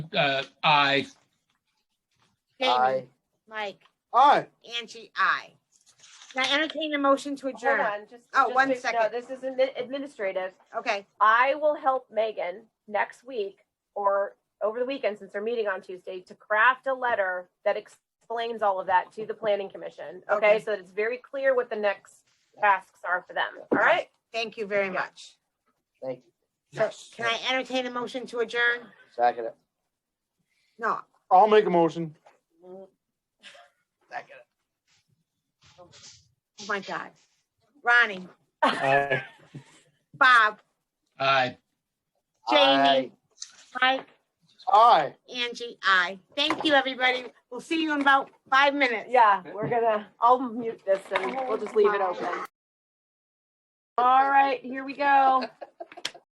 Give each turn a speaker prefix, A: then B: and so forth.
A: uh, aye.
B: Jamie,
C: Aye.
B: Mike,
D: Aye.
B: Angie, I. Now entertain a motion to
E: Hold
B: adjourn.
E: on, just.
B: Oh,
E: just
B: one
E: to- no,
B: second.
E: This is admi- administrative.
B: Okay,
E: I will help Megan next week or over the weekend, since they're meeting on Tuesday, to craft a letter that explains all of that to the planning commission.
B: Okay.
E: Okay, so that it's very clear what the next tasks are for them. All right?
B: thank you very much.
C: Thank you.
B: So can I entertain a motion to adjourn?
C: Second it.
B: No,
D: I'll make a motion.
C: Second it.
B: oh my God. Ronnie,
D: Aye.
B: Bob,
A: Aye.
B: Jamie, Mike,
D: Aye.
B: Angie, I. Thank you, everybody. We'll see you in about five minutes.
E: Yeah, we're gonna, I'll mute this and we'll just leave it open. All right, here we go.